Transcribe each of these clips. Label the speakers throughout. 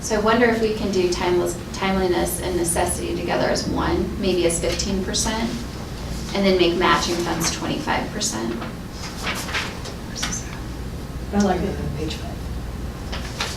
Speaker 1: So I wonder if we can do timeless, timeliness and necessity together as one, maybe as fifteen percent, and then make matching funds twenty-five percent.
Speaker 2: I like it on page five.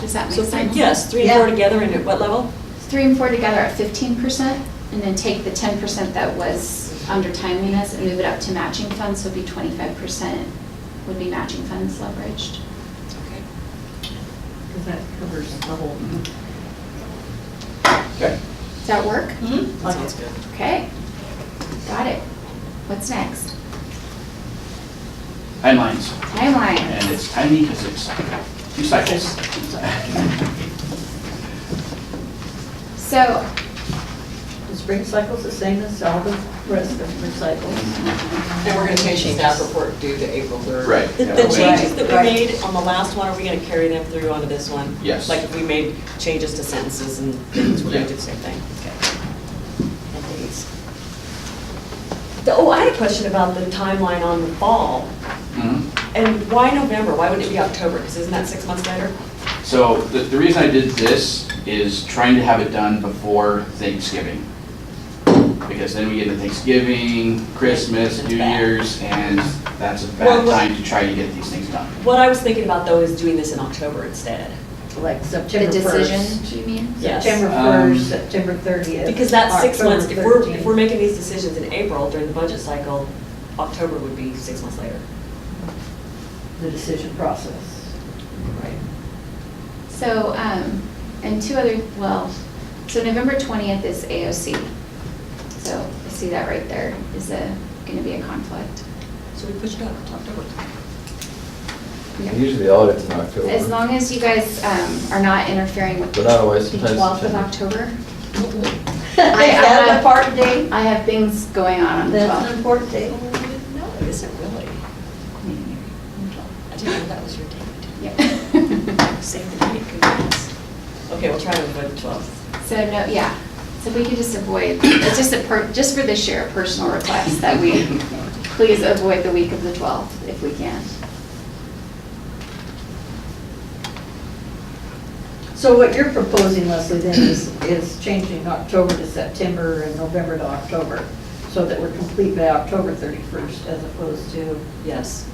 Speaker 1: Does that
Speaker 3: So
Speaker 1: make
Speaker 3: three,
Speaker 1: sense?
Speaker 3: yes, three and four
Speaker 2: Yeah.
Speaker 3: together and at what level?
Speaker 1: Three and four together at fifteen percent, and then take the ten percent that was under timeliness and move it up to matching funds, so it'd be twenty-five percent would be matching funds leveraged.
Speaker 2: Because that covers the whole.
Speaker 4: Okay.
Speaker 1: Does that work?
Speaker 2: Like
Speaker 3: Sounds
Speaker 2: it.
Speaker 3: good.
Speaker 1: Okay, got it. What's next?
Speaker 4: Timelines,
Speaker 1: Timeline.
Speaker 4: and it's timely because it's two cycles.
Speaker 1: So
Speaker 2: The spring cycle's the same as all the rest of the cycles.
Speaker 5: And we're going to change the staff report due to April 3rd.
Speaker 4: Right.
Speaker 3: The
Speaker 4: Yeah,
Speaker 3: the
Speaker 4: we-
Speaker 3: changes that we
Speaker 2: Right.
Speaker 3: made on the last one, are we gonna carry them through onto this one?
Speaker 4: Yes.
Speaker 3: Like if we made changes to sentences and things, we're gonna do the same thing? Okay. And dates. The- Oh, I had a question about the timeline on the fall.
Speaker 4: Mhm.
Speaker 3: And why November? Why wouldn't it be October? Because isn't that six months later?
Speaker 4: So the, the reason I did this is trying to have it done before Thanksgiving. Because then we get into Thanksgiving, Christmas,
Speaker 3: It's
Speaker 4: New
Speaker 3: bad.
Speaker 4: Year's, and that's a
Speaker 3: Well,
Speaker 4: bad
Speaker 3: what-
Speaker 4: time to try to get these things done.
Speaker 3: What I was thinking about though is doing this in October instead.
Speaker 2: Like
Speaker 1: the
Speaker 2: September
Speaker 1: decision,
Speaker 2: 1st.
Speaker 1: do you mean?
Speaker 3: Yes.
Speaker 2: September
Speaker 4: Um,
Speaker 2: 1st, September 30th.
Speaker 3: Because that's six months, if
Speaker 2: October
Speaker 3: we're, if we're making these decisions in April during the budget cycle, October would be six months later.
Speaker 2: 13th, The decision process.
Speaker 3: Right.
Speaker 1: So, um, and two other, well, so November twentieth is AOC. So I see that right there is a, gonna be a conflict.
Speaker 3: So we push it up to October.
Speaker 6: Usually the audit's in October.
Speaker 1: As long as you guys, um, are not interfering with.
Speaker 6: But not always,
Speaker 1: the
Speaker 6: sometimes
Speaker 1: 12th of
Speaker 6: September.
Speaker 1: October.
Speaker 2: Is
Speaker 1: I
Speaker 2: that
Speaker 1: have-
Speaker 2: the part date?
Speaker 1: I have things going on on the
Speaker 2: That's an
Speaker 1: twelfth.
Speaker 2: important date.
Speaker 3: No, it isn't really. I didn't know that was your date. Same date, goodness. Okay, we'll try to avoid the twelfth.
Speaker 1: So no, yeah, so if we could just avoid, it's just a per, just for this year, a personal request that we please avoid the week of the twelfth if we can.
Speaker 2: So what you're proposing, Leslie, then is, is changing October to September and November to October, so that we're complete by October 31st as opposed to,
Speaker 3: Yes.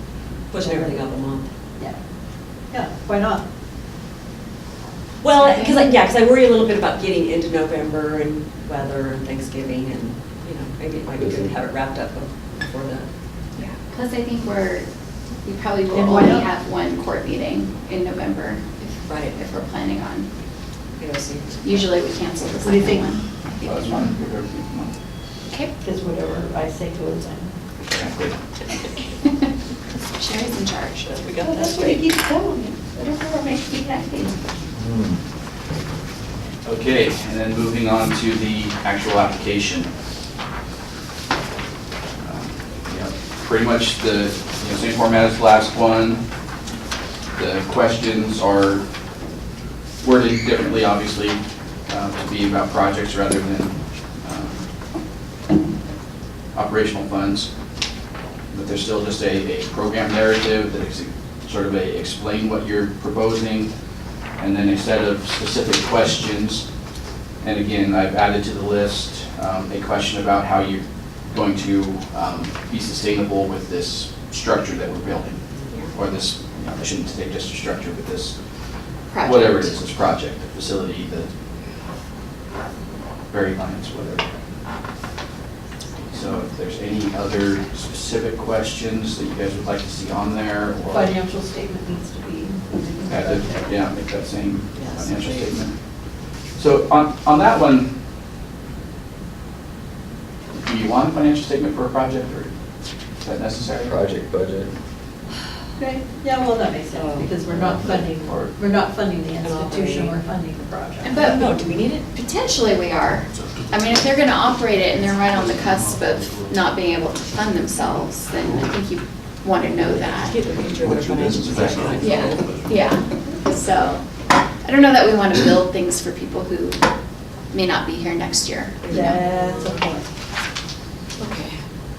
Speaker 3: Pushing everything up a month.
Speaker 2: yeah. Yeah, why not?
Speaker 3: Well, because I, yeah, because I worry a little bit about getting into November and weather and Thanksgiving and, you know, maybe it might be good to have it wrapped up before that.
Speaker 1: Yeah. Plus, I think we're, we probably will
Speaker 2: And why
Speaker 1: only
Speaker 2: not?
Speaker 1: have one court meeting in November if-
Speaker 3: Right.
Speaker 1: if we're planning on.
Speaker 3: You know, see.
Speaker 1: Usually, we cancel the
Speaker 2: What do you
Speaker 1: second
Speaker 2: think?
Speaker 1: one.
Speaker 4: So that's one,
Speaker 1: Okay.
Speaker 2: Because whatever I say goes on.
Speaker 4: Exactly.
Speaker 1: Sherry's in charge.
Speaker 3: But We
Speaker 2: Oh,
Speaker 3: got that straight.
Speaker 2: keeps telling me. Whatever makes me happy.
Speaker 6: Hmm.
Speaker 4: Okay, and then moving on to the actual application. Um, yeah, Pretty much the, you know, same format as the last one. The questions are worded differently, obviously, uh, to be about projects rather than um, operational funds. But there's still just a, a program narrative that is sort of a explain what you're proposing, and then a set of specific questions. And again, I've added to the list um, a question about how you're going to um, be sustainable with this structure that we're building. Or this, you know, I shouldn't say just a structure, but this,
Speaker 1: Project.
Speaker 4: whatever it is, this project, the facility, the very lines, whatever. So if there's any other specific questions that you guys would like to see on there or.
Speaker 2: Financial statement needs to be. included in the
Speaker 4: Had
Speaker 2: budget.
Speaker 4: to, yeah, make that same
Speaker 3: Yes,
Speaker 4: financial
Speaker 3: please.
Speaker 4: statement. So on, on that one, do you want a financial statement for a project, or is that necessary?
Speaker 6: Project budget.
Speaker 2: Okay, yeah, well, that makes sense, because we're not funding,
Speaker 4: Or-
Speaker 2: we're Um, not funding the
Speaker 3: An
Speaker 2: institution,
Speaker 3: operating.
Speaker 2: we're funding the project.
Speaker 1: But-
Speaker 3: No, do we need it?
Speaker 1: Potentially, we are. I mean, if they're gonna operate it and they're right on the cusp of not being able to fund themselves, then I think you want to know that.
Speaker 3: Get the picture of their
Speaker 4: What's your
Speaker 3: financial
Speaker 4: business
Speaker 3: position, I
Speaker 4: background?
Speaker 3: feel.
Speaker 1: Yeah, yeah. So, I don't know that we want to build things for people who may not be here next year. you know?
Speaker 2: That's a point.